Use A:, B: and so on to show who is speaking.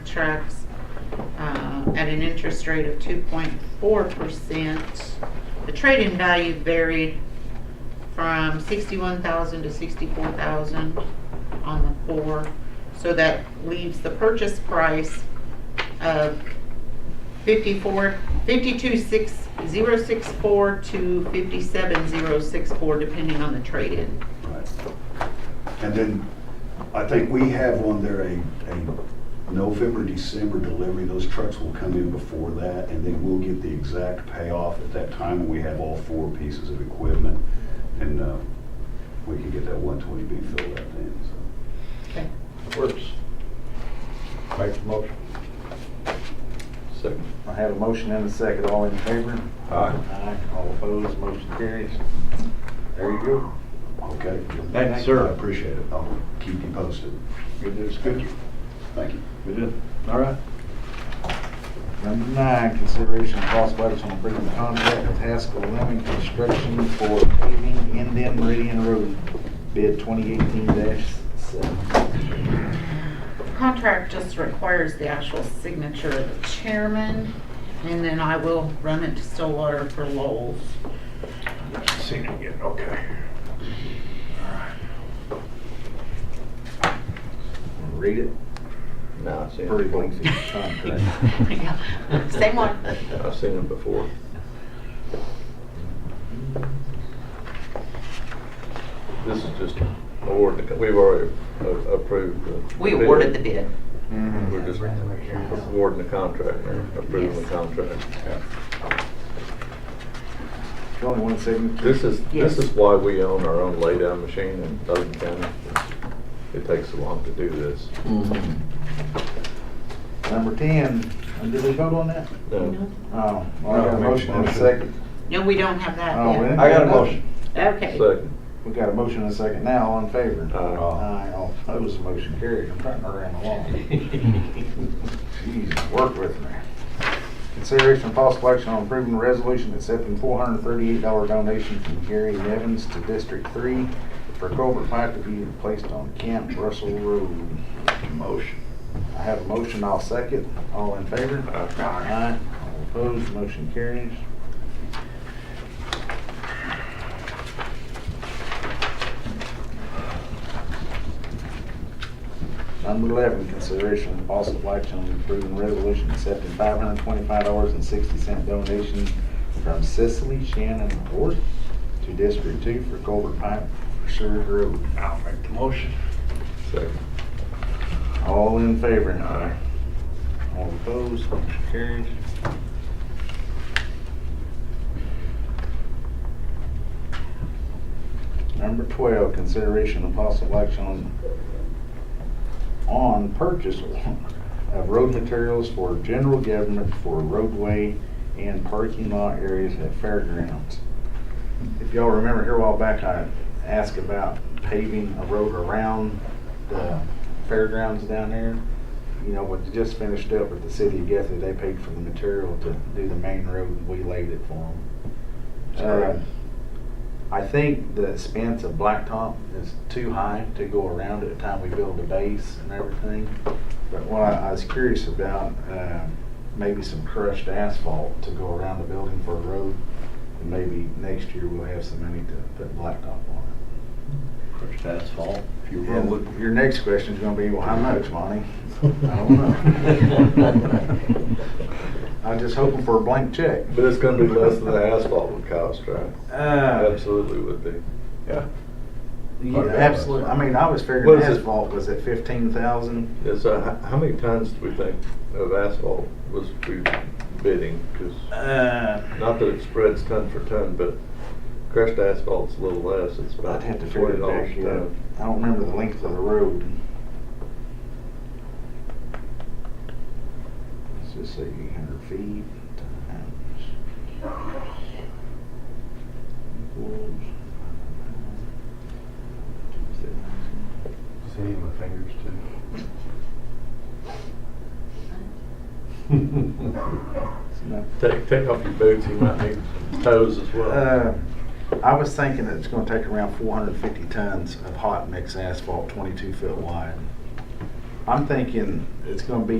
A: contracts uh, at an interest rate of 2.4%. The trading value varied from 61,000 to 64,000 on the four. So that leaves the purchase price of 54, 52,664 to 57,064, depending on the trade-in.
B: Right. And then, I think we have on there a, a November, December delivery, those trucks will come in before that, and then we'll get the exact payoff at that time when we have all four pieces of equipment, and, uh, we can get that one twenty B filled out then, so.
A: Okay.
C: Works. Make the motion. Second.
D: I have a motion and a second, all in favor?
C: Aye.
D: Aye, all opposed, motion carries. There you go.
B: Okay?
C: Thank you, sir.
B: I appreciate it, I'll keep you posted,
D: Good news, good.
B: thank you.
C: We did. All right.
D: Number nine, consideration of possible action on approving the contract with Haskell Lemon Construction for paving Indian Meridian Road, bid 2018-7.
A: Contract just requires the actual signature of the chairman, and then I will run it to Stillwater for Lowell's.
C: Seen it again, okay.
D: Read it,
C: No, I've seen it
D: pretty
C: before.
D: lengthy contract.
A: Same one.
C: I've seen it before. This is just award, we've already a- approved the.
A: We awarded the bid.
C: Mm-hmm. We're just awarding the contract, or approving the contract.
D: There's Only one signature.
C: This is,
A: Yes.
C: this is why we own our own laydown machine in Logan County. It takes so long to do this.
D: Number 10, and did we vote on that?
C: No.
D: Oh, well, I got a motion and a second.
A: No, we don't have that
D: Oh, we
A: yet.
D: didn't
C: I got a
D: have nothing.
C: motion.
A: Okay.
C: Second.
D: We got a motion and a second now, all in favor?
C: Aye.
D: Aye, Oh, all opposed, motion carried. I'm trying to run along. Jeez, work with me. Consideration of possible action on approving the resolution accepting four hundred and thirty-eight dollar donation from Gary Evans to District Three for culvert pipe to be placed on Camp Russell Road.
C: Motion.
D: I have a motion, I'll second. All in favor?
C: Aye.
D: Aye. All opposed, motion carries. Number eleven, consideration of possible action on approving resolution accepting five hundred twenty-five dollars and sixty cent donation from Cicely Shannon Worth to District Two for Culver Pipe for Seward Road.
C: I'll make the motion. Second.
D: All in favor? Aye. All opposed, motion carries. Number 12, consideration of possible action on, on purchase of road materials for general government for roadway and parking lot areas at fairgrounds. If y'all remember here a while back, I asked about paving a road around the fairgrounds down there. You know, what just finished up with the city of Guthrie, they paid for the material to do the main road and we laid it for them. I think the expense of blacktop is too high to go around at the time we build the base and everything. But what I I was curious about, uh, maybe some crushed asphalt to go around the building for a road. And maybe next year we'll have some money to put blacktop on it.
E: Crushed asphalt, if you
D: Yeah,
E: roll it.
D: look, Your next question's gonna be, well, how much, Monty? I don't know. I'm just hoping for a blank check.
C: But it's gonna be less than the asphalt would cost, right?
D: Uh,
C: Absolutely would be. Yeah.
D: yeah, absolutely, I mean, I was
C: What
D: figuring
C: is it?
D: asphalt was at fifteen thousand.
C: Yes, so how, how many tons do we think of asphalt was we bidding? Cause
D: Uh,
C: not that it spreads ton for ton, but crushed asphalt's a little less. It's about
D: I'd have to figure
C: twenty
D: it
C: dollars
D: back
C: a
D: out.
C: ton.
D: I don't remember the length of the road. Let's just say eight hundred feet times. equals- uh,
E: See my fingers
D: It's enough.
C: Take, take off your boots, you might need toes as well.
D: Uh, I was thinking that it's gonna take around four hundred and fifty tons of hot mix asphalt, twenty-two foot wide. I'm thinking it's gonna be